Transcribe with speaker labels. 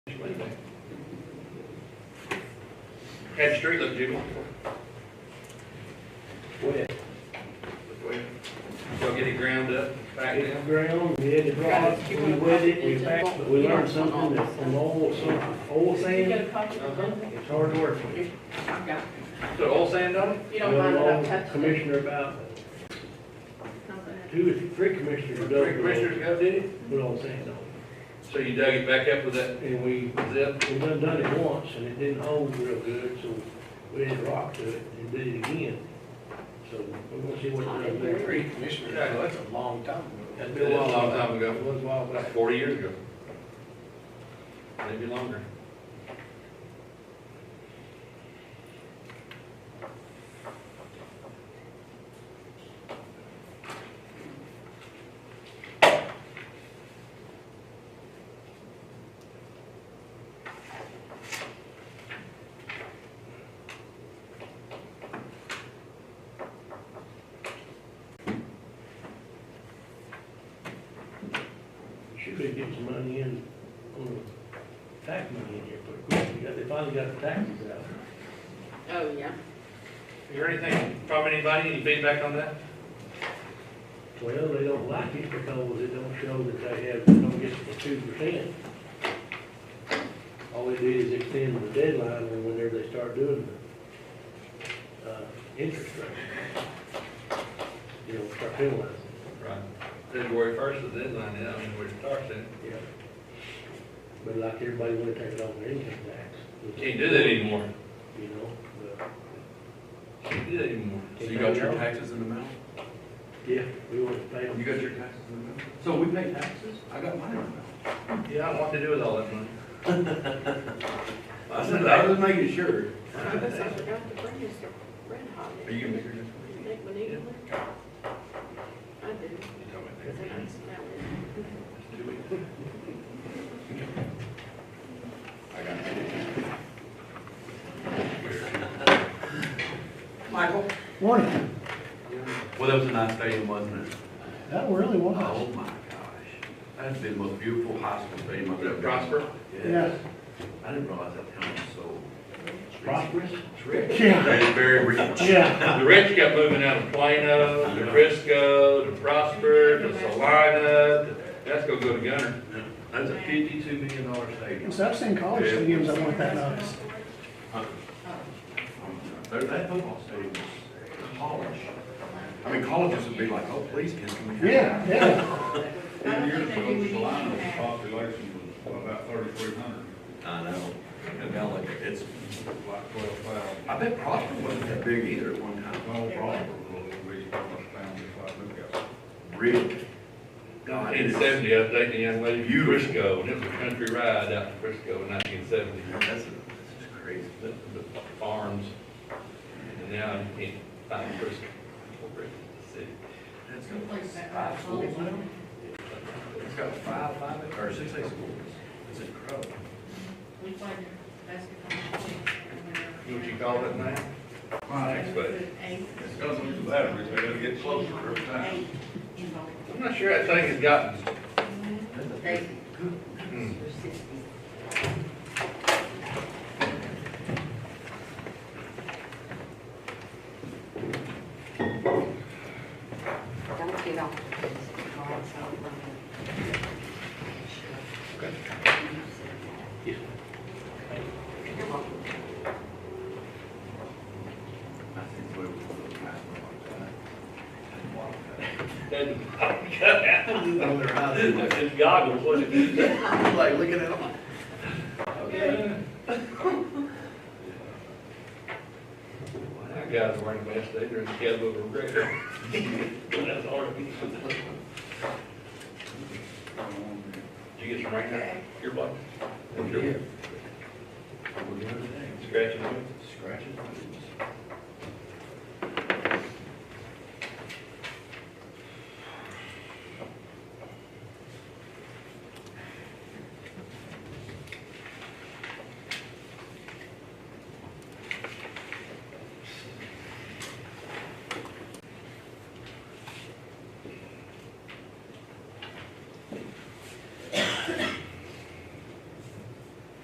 Speaker 1: Anyway, Had the street look jubilant.
Speaker 2: wet.
Speaker 1: Y'all get it ground up, back
Speaker 2: It's
Speaker 1: down.
Speaker 2: ground, we had to dry it, we wet it, we packed, but we learned something that from old, some old
Speaker 3: You got
Speaker 2: sand,
Speaker 3: a copy of it?
Speaker 2: it's hard to work with.
Speaker 3: I've got it.
Speaker 1: So oil sand on it?
Speaker 3: You don't mind
Speaker 2: Well,
Speaker 3: that I've
Speaker 2: old
Speaker 3: touched it?
Speaker 2: Commissioner about, two or three commissioners dug
Speaker 1: Three
Speaker 2: with
Speaker 1: commissioners got did it?
Speaker 2: old, with old sand on
Speaker 1: So you dug it back up with that
Speaker 2: it. And we,
Speaker 1: zip?
Speaker 2: we done done it once, and it didn't hold real good, so we had to rock to it and did it again. So we're gonna see what it does there.
Speaker 1: Three commissioners. Yeah, that's
Speaker 4: a long time ago.
Speaker 2: That's
Speaker 1: It was a long time ago.
Speaker 2: It was a while
Speaker 1: like
Speaker 2: back.
Speaker 1: forty years ago. Maybe longer.
Speaker 2: She could get some money in, um, tax money in here pretty quick. We got- They finally got the taxes out.
Speaker 3: Oh, yeah.
Speaker 1: Is there anything from anybody, any feedback on that?
Speaker 2: Well, they don't like it because it don't show that they have, don't get the two percent. All they did is extend the deadline and whenever they start doing the, uh, interest rate. You know, start penalizing.
Speaker 1: Right. February first is the deadline, yeah, I mean, we're starting.
Speaker 2: Yeah. But like everybody wanna take it on their income tax.
Speaker 1: Can't do that anymore.
Speaker 2: You know, but,
Speaker 1: Can't do that anymore.
Speaker 4: So you got your taxes in the mail?
Speaker 2: yeah, we want to pay them.
Speaker 1: You got your,
Speaker 4: Taxes in the mail? So we pay taxes? I got mine in the mail.
Speaker 1: yeah, I want to do with all that money.
Speaker 4: I said, I was making sure.
Speaker 3: I guess I forgot to bring this red hot.
Speaker 1: Are you gonna be here next
Speaker 3: I think we need one. I do,
Speaker 1: You tell me.
Speaker 3: 'cause I can smell it.
Speaker 4: Michael?
Speaker 5: Morning.
Speaker 4: Well, that was a nice stadium, wasn't it?
Speaker 5: That really
Speaker 4: Oh,
Speaker 5: was.
Speaker 4: my gosh. That's the most beautiful high school stadium I've
Speaker 1: Is
Speaker 4: ever.
Speaker 1: it Prosper?
Speaker 4: Yes. I didn't realize that town was so
Speaker 2: Prosperous?
Speaker 4: rich.
Speaker 5: Yeah,
Speaker 4: Very, very rich.
Speaker 5: yeah.
Speaker 1: The rich got moving out of Plano, to Frisco, to Prosper, to Salina, to- that's gonna go to Gunner.
Speaker 4: That's a fifty-two million dollar stadium.
Speaker 5: So I've seen college stadiums that weren't that nice.
Speaker 4: There- That football stadium was college. I mean, colleges would be like, oh, please, kids, can we have?
Speaker 5: Yeah, yeah.
Speaker 6: Ten years ago, Salina's population was about thirty-three hundred,
Speaker 4: I know. And now, like, it's,
Speaker 6: like twelve thousand.
Speaker 4: I bet Prosper wasn't that big either at one time.
Speaker 6: Well, Prosper was a little bit, almost down just like Newcastle.
Speaker 4: Really? God, it
Speaker 1: Nineteen
Speaker 4: is-
Speaker 1: seventy, I was dating a young lady from Frisco, and it was a country ride out to Frisco in nineteen seventy.
Speaker 4: That's, that's just crazy.
Speaker 1: The the farms, and now you can't find Frisco. over in the city.
Speaker 4: That's got five schools now. It's got five, five, or six, eight schools. It's incredible.
Speaker 7: We played basketball.
Speaker 1: You know what you call that now? Thanks, buddy.
Speaker 7: Eight.
Speaker 6: It's gonna lose the batteries, they gotta get closer every time.
Speaker 7: Eight involved.
Speaker 1: I'm not sure that thing has gotten,
Speaker 4: That's a
Speaker 7: They-
Speaker 4: big-
Speaker 1: hmm,
Speaker 7: There's sixty.
Speaker 8: Don't get off. Sure. You're welcome.
Speaker 4: I think we were a little high for like that. And water cut.
Speaker 1: that, it's goggles, wasn't it?
Speaker 4: I'm Like, looking at them. Okay.
Speaker 1: That guy's wearing the best day during the cab over greater. That's hard. Did you get some right now? Your butt?
Speaker 4: We're good today.
Speaker 1: Scratching it.